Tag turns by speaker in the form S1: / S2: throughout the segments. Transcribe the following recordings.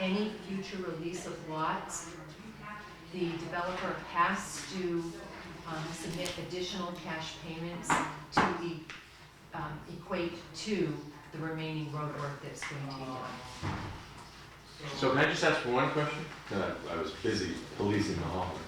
S1: any future release of lots, the developer has to um, submit additional cash payments to the, um, equate to the remaining roadwork that's going to be
S2: Oh.
S1: done.
S2: So can I just ask one question?
S3: No, I was busy policing the hallways.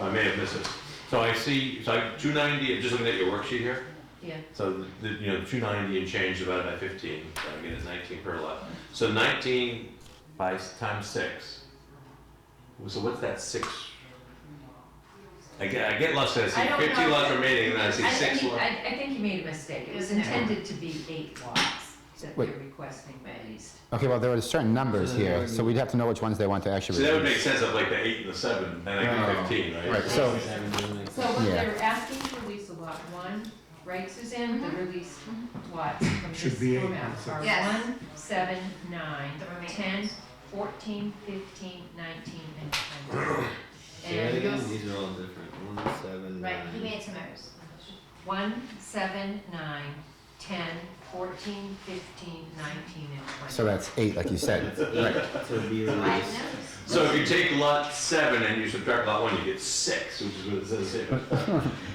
S3: I may have missed it.
S2: So I see, so I, two ninety, I'm just looking at your worksheet here.
S1: Yeah,
S2: So the, you know, two ninety and change divided by fifteen, so I get it's nineteen per lot. So nineteen by, s- times six. So what's that six? I get, I get lots, I see
S1: I don't
S2: fifty
S1: know.
S2: lots remaining, and I see
S1: I
S2: six
S1: think,
S2: lots.
S1: I, I think you made a mistake, it was intended to be eight lots that they're
S4: Wait.
S1: requesting raised.
S4: Okay, well, there are certain numbers here, so we'd have to know which ones they want to actually.
S2: So that would make
S4: reduce.
S2: sense of like the eight and the seven, and I
S4: Oh.
S2: get fifteen,
S4: Right,
S2: right?
S4: so,
S1: So what
S4: Yeah.
S1: they're asking to release a lot one, right Suzanne, the released lots from
S5: Should
S1: this
S5: be eight,
S1: format
S5: that's it.
S1: are
S6: Yes.
S1: one, seven, nine,
S6: The remaining.
S1: ten, fourteen, fifteen, nineteen, and twenty. And you'll s-
S7: These are all different. One, seven,
S6: Right, he
S7: nine.
S6: made some errors.
S1: one, seven, nine, ten, fourteen, fifteen, nineteen, and twenty.
S4: so that's eight, like you said. Right.
S7: To be
S6: Five
S7: released.
S6: notes.
S2: So if you take lot seven and you subtract lot one, you get six, which is what it says here.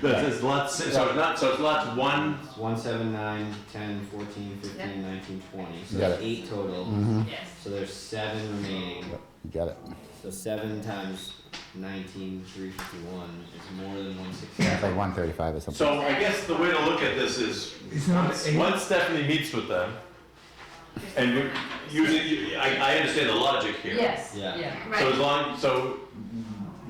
S2: That says lot six, so it's not, so it's lots
S5: Um,
S2: one,
S7: One, seven, nine, ten, fourteen, fifteen, nineteen, twenty. So
S4: Got
S7: that's eight total.
S4: Mhm.
S6: Yes.
S7: So there's seven remaining.
S4: You got it.
S7: So seven times nineteen, three fifty-one is more than one sixty.
S4: Yeah, it's like one thirty-five or something.
S2: So I guess the way to look at this is,
S5: It's not
S2: once-
S5: eight.
S2: once Stephanie meets with them, and you- using, you- I, I understand the logic here.
S1: Yes,
S7: Yeah.
S1: yeah,
S2: So as
S6: Right,
S2: long, so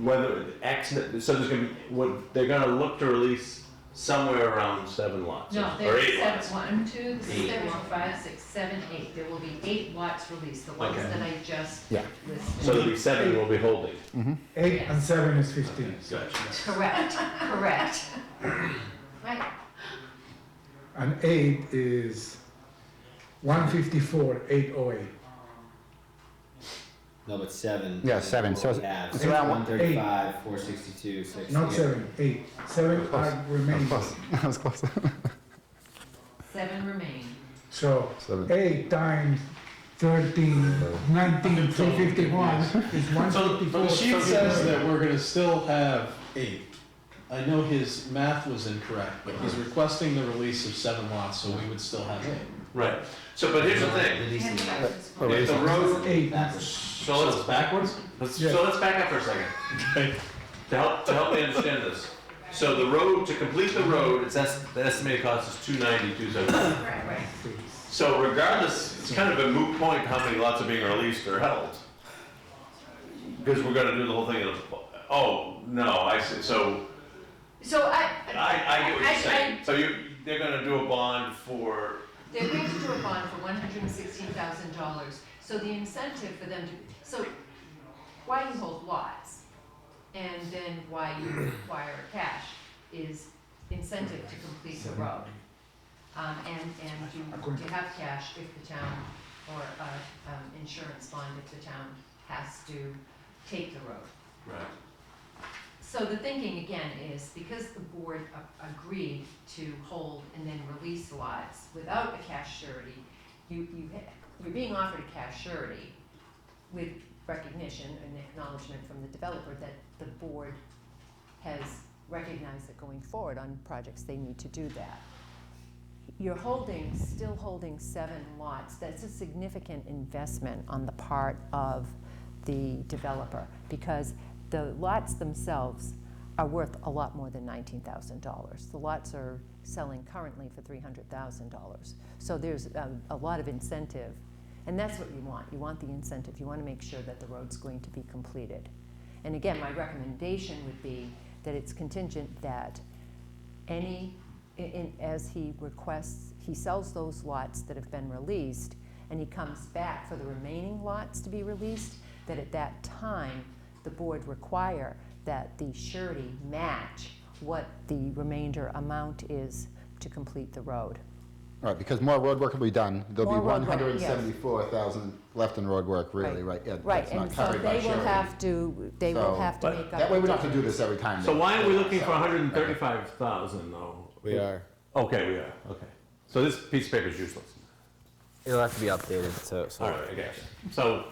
S2: whether X, so there's gonna be, what, they're gonna look to release somewhere around seven lots,
S1: no,
S2: or
S1: there's
S2: eight lots.
S1: seven, one, two, three,
S6: Eight.
S1: four, five, six, seven, eight, there will be eight lots released, the ones
S2: Okay.
S1: that I just
S4: Yeah.
S1: listed.
S2: So there'll be seven we'll be holding.
S5: Eight and seven is fifteen.
S2: Gotcha.
S1: Correct, correct.
S6: right.
S5: And eight is one fifty-four, eight oh eight.
S7: No, but seven.
S4: Yeah, seven. So
S7: What we
S4: it's-
S7: have.
S4: it's around
S7: One
S4: one-
S7: thirty-five, four sixty-two, six.
S5: Not seven, eight. Seven are
S4: That was
S5: remaining.
S4: close. That was close.
S1: Seven remain.
S5: So
S4: Seven.
S5: eight times thirteen, nineteen, three fifty-one is one
S2: So- but
S5: fifty-four.
S2: she
S8: It says that we're gonna still have eight. I know his math was incorrect, but he's requesting the release of seven lots, so we would still have eight.
S2: Right. So, but here's the thing.
S7: Releasing that.
S2: If the road,
S5: Eight.
S2: so let's,
S8: backwards?
S2: let's,
S5: Yeah.
S2: so let's back up for a second.
S8: Okay.
S2: To help, to help me understand this. So the road, to complete the road, it's, es- the estimated cost is two ninety, two seventy.
S6: Right, right.
S2: So regardless, it's kind of a moot point how many lots are being released or held. Because we're gonna do the whole thing in a, oh, no, I see, so
S1: So I,
S2: I, I get what
S1: I- I-
S2: you're saying. So you, they're gonna do a bond for,
S1: they're going to do a bond for one hundred and sixteen thousand dollars, so the incentive for them to, so why you hold lots and then why you require cash is incentive to complete the road. Um, and, and you, you have cash if the town, or, uh, um, insurance bond if the town has to take the road.
S2: right.
S1: So the thinking again is because the board a- agreed to hold and then release lots without a cash surety, you, you, ha- you're being offered a cash surety with recognition and acknowledgement from the developer that the board has recognized that going forward on projects, they need to do that. You're holding, still holding seven lots, that's a significant investment on the part of the developer, because the lots themselves are worth a lot more than nineteen thousand dollars. The lots are selling currently for three hundred thousand dollars. So there's a, a lot of incentive, and that's what you want, you want the incentive, you wanna make sure that the road's going to be completed. And again, my recommendation would be that it's contingent that any, in- in, as he requests, he sells those lots that have been released, and he comes back for the remaining lots to be released, that at that time, the board require that the surety match what the remainder amount is to complete the road.
S4: All right, because more road work will be done. There'll be
S1: More road
S4: one
S1: work,
S4: hundred and
S1: yes.
S4: seventy-four thousand left in road work, really, right? Yeah,
S1: Right,
S4: that's not
S1: and so
S4: covered by
S1: they will
S4: surety.
S1: have to, they will
S4: So-
S1: have to
S9: But
S1: make up.
S4: That way
S1: the
S4: we don't have to do
S1: difference.
S4: this every time.
S9: So
S4: though.
S9: why are we looking for
S4: So-
S9: hundred and thirty-five thousand though?
S7: We are.
S9: Okay, we are, okay. So this piece of paper is useless.
S7: It'll have to be updated, so.
S9: All right, I guess. So